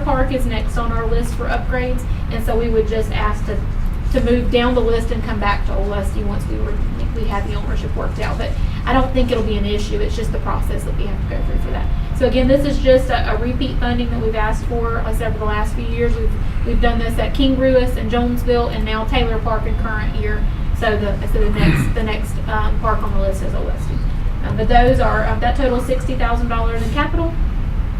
Park is next on our list for upgrades, and so we would just ask to, to move down the list and come back to Old Lusty once we were, we had the ownership worked out. But I don't think it'll be an issue, it's just the process that we have to go through for that. So again, this is just a, a repeat funding that we've asked for, like I said, over the last few years. We've, we've done this at King Ruis and Jonesville, and now Taylor Park in current year. So the, so the next, the next, um, park on the list is Old Lusty. Um, But those are, um, that total sixty thousand dollars in capital,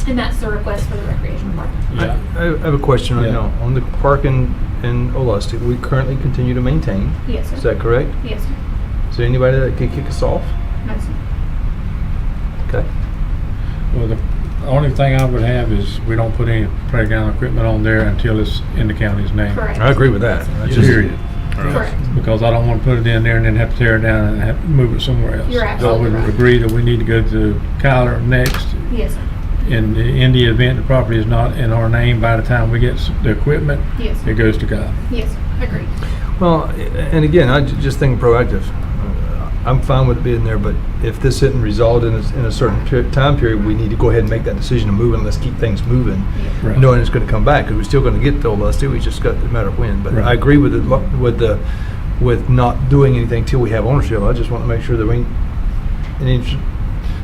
and that's the request for the recreation department. I Yeah. I have a question right Yeah. now. On the park in, in Olustee, we currently continue to maintain. Yes, sir. Is that correct? Yes, sir. Is there anybody that could kick us off? No, sir. Okay. Well, the only thing I would have is we don't put any playground equipment on there until it's in the county's name. Correct. I agree with that. That's just- Period. Correct. Because I don't want to put it in there and then have to tear it down and have, move it somewhere else. You're absolutely I right. would agree that we need to go to Kyler next. Yes, sir. In the, in the event the property is not in our name by the time we get s- the equipment, Yes, it sir. goes to Kyler. Yes, sir. Agreed. Well, a- and again, I ju- just think proactive. Uh, I'm fine with it being there, but if this isn't resolved in a, s- in a certain peri- time period, we need to go ahead and make that decision and move and let's keep things moving. Yes. Right. knowing it's going to come back, because we're still going to get the last two, we just got, it's a matter of when. But I Right. agree with the, lo- with the, with not doing anything till we have ownership. I just want to make sure that we, and it's-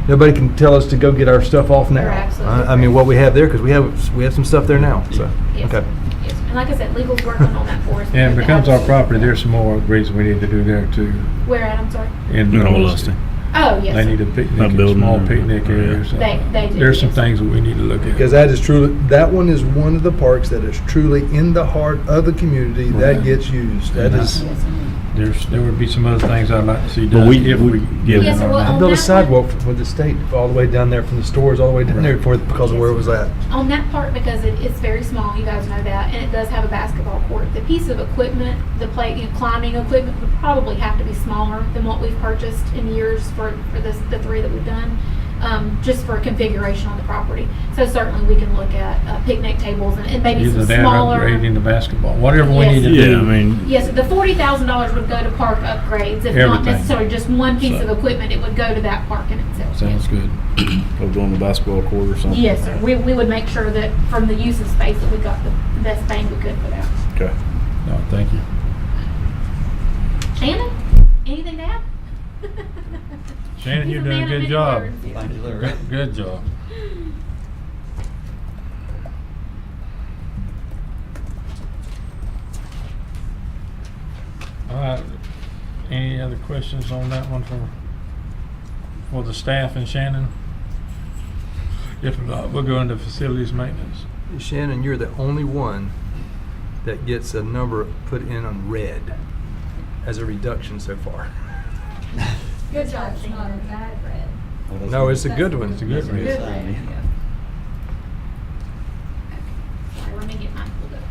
nobody can tell us to go get our stuff off now. You're absolutely I- I mean, correct. what we have there, because we have, we have some stuff there now, so, Yes, okay. sir. Yes, sir. And like I said, legal's working on that for us. And it We becomes have- our property, there's some more reason we need to do there too. uh, Where at, I'm sorry? In No, North lost it. Oh, yes. They sir. need a picnic, That building small or- picnic area or yeah. something. They- they do, There's some yes. things that we need to look at. Because that is truly, that one is one of the parks that is truly in the heart of the community that Right. gets used. That Yeah. is, Yes, sir. There's, there would be some other things I'd like to see But done we- if we- we. yeah, get Yes, it well, or not. on build a that sidewalk with the state all the way down there, from the stores all the way down there Right. for, because of where it was at. on that part because it is very small, you guys know that, and it does have a basketball court. The piece of equipment, the play, you know, climbing equipment would probably have to be smaller than what we've purchased in years for, for this, the three that we've done, um, just for configuration on the property. So certainly we can look at uh, picnic tables and, and maybe Either some that or smaller. upgrading the basketball, whatever we Yes. need to do. Yeah, I mean, Yes, the forty thousand dollars would go to park upgrades, if not Everything. necessarily just one piece of So- equipment, it would go to that park in itself. Sounds good. Go go on the basketball court or something. Yes, sir, we, we would make sure that from the use of space that we got the best bang we could for that. Okay. No, thank you. Shannon, anything to add? Shannon, He's you're doing man a of good many job. words. Good- Good job. All right, any other questions on that one for, for the staff and Shannon? If not, we'll go into facilities maintenance. Shannon, you're the only one that gets a number put in on red as a reduction so far. Good job, Shannon. No, it's a good one. It's a good Good. reason. one. Sorry, let me get mine pulled up.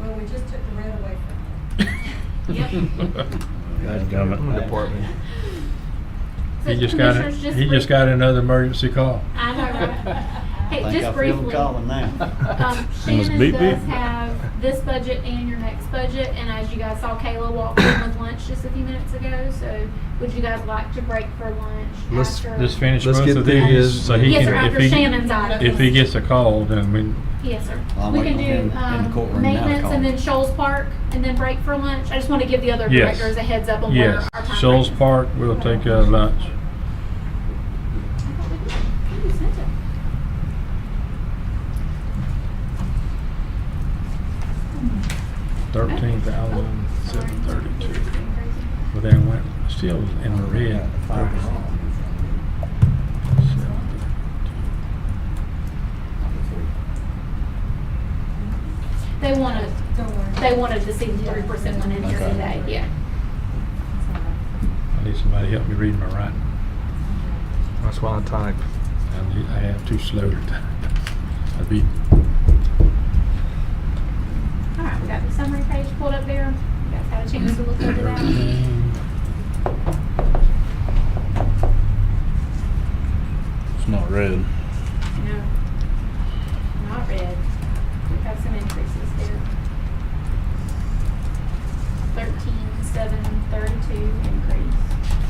Well, we just took the red away from Yep. Government department. He So, just got, commissioners, he brief- just got another emergency call. I know, right? Um, Hey, Think I just feel 'em briefly. Calling now. Um, Almost Shannon beat me. does have this budget and your next budget, and as you guys saw, Kayla walked in with lunch just a few minutes ago, so would you guys like to break for lunch Let's- after? Just finish Let's both get of through these, his- so he Yes, can, sir, if after he. Shannon's item. If he gets a call, then we, Yes, sir. Well, I'm We can waiting in- in do the um, courtroom now, maintenance and Colin. then Shoals Park and then break for lunch. I just want to give the other Yes. directors a heads up on where yes, our time. Shoals frame is. Park, we'll take uh, lunch. I thought we did. I think we sent it. Thirteen thousand Oh, seven thirty-two. But they went, still in the red. They wanted, it. Don't worry. they wanted to see the three percent one in here Okay. today, yeah. It's all right. I need somebody to help me read my writing. That's why I type. I need- I am too slow to type. I'd be, All right, we got the summary page pulled up there. You guys had a chance to look over that. It's not red. No, not red. We have some increases there. Thirteen, seven, thirty-two increase.